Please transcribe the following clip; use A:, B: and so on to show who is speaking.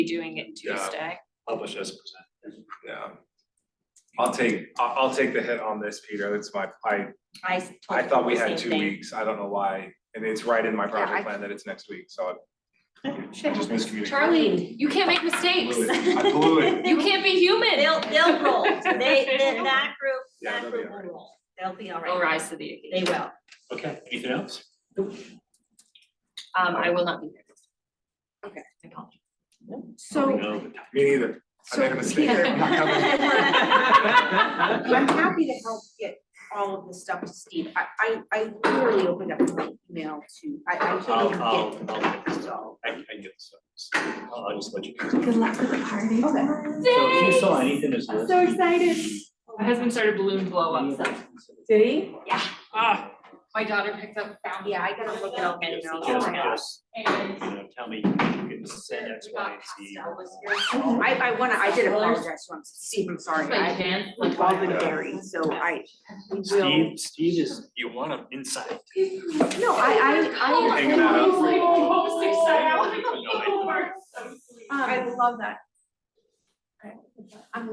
A: be doing it
B: Yeah.
A: Tuesday.
C: publish as presented.
B: yeah.
D: I'll take, I'll, I'll take the hit on this, Peter, it's my, I,
E: I s- told
D: I
E: him
D: thought we
E: the
D: had
E: same
D: two
E: thing.
D: weeks, I don't know why, and it's right in my
E: Yeah, I-
D: project plan that it's next week, so I I just miscommunicated.
A: Charlie, you can't make mistakes.
D: Blew it. I blew it.
A: You can't be human.
E: They'll, they'll roll, they, then that group,
D: Yeah,
E: that
D: they'll be
E: group will
D: alright.
E: roll, they'll be all right.
A: They'll rise to the
E: They
A: occasion.
E: will,
C: Okay, anything else?
A: Um, I will not be there.
F: Okay.
A: I apologize.
F: So,
C: No.
D: Me neither, I
F: so
D: made a mistake,
F: Peter,
D: I'm not coming.
F: I'm happy to help get all of this stuff to Steve. I, I, I literally opened up my email to, I, I
C: I'll,
F: can't
C: I'll,
F: even
C: I'll,
F: get, so.
C: I, I get this. I'll I'll just let you. So
F: Good luck with the party. Okay.
C: if you saw anything as
F: I'm
C: listed.
F: so excited.
A: My husband started balloon blow up, so.
F: Did he?
A: Ah, my daughter picked up, found.
F: Yeah, I gotta look it up and
C: Just,
F: know.
C: just,
F: Oh my gosh.
C: just, you know, tell me, you can send X, Y, and Z.
F: I, I wanna, I did apologize to him, Steve, I'm sorry.
A: Like
F: I
A: Jan, like.
F: like all been buried, so I, we will.
C: Steve, Steve is, you want him inside.
F: No, I,
A: Oh,
F: I, I.
A: my
D: Hang
A: God,
D: that
A: he's like, oh, six, seven.
C: No, I-
F: I love that.